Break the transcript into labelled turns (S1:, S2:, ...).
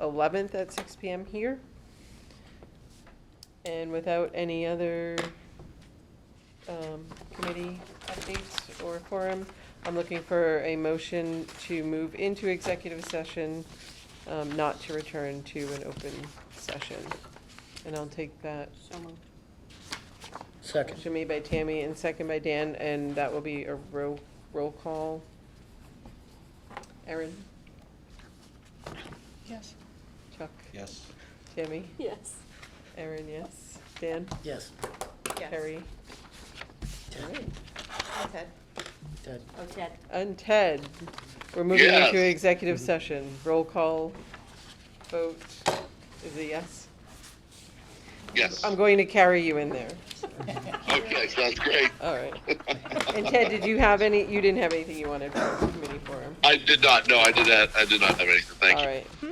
S1: 11th at 6 PM here. And without any other um, committee updates or forum, I'm looking for a motion to move into executive session, um, not to return to an open session. And I'll take that
S2: So moved.
S3: Second.
S1: motion made by Tammy and second by Dan, and that will be a roll, roll call. Erin,
S2: Yes.
S1: Chuck,
S4: Yes.
S1: Tammy,
S2: Yes.
S1: Erin, yes, Dan?
S3: Yes.
S1: Carrie.
S3: Ted.
S2: Ted.
S3: Ted.
S2: Oh, Ted.
S1: And Ted. We're moving
S4: Yes.
S1: into executive session. Roll call vote is a yes.
S4: Yes.
S1: I'm going to carry you in there.
S4: Okay, sounds great.
S1: All right. And Ted, did you have any, you didn't have anything you wanted for the committee forum?
S4: I did not, no, I did not, I did not have anything, thank
S1: All
S4: you.
S1: right.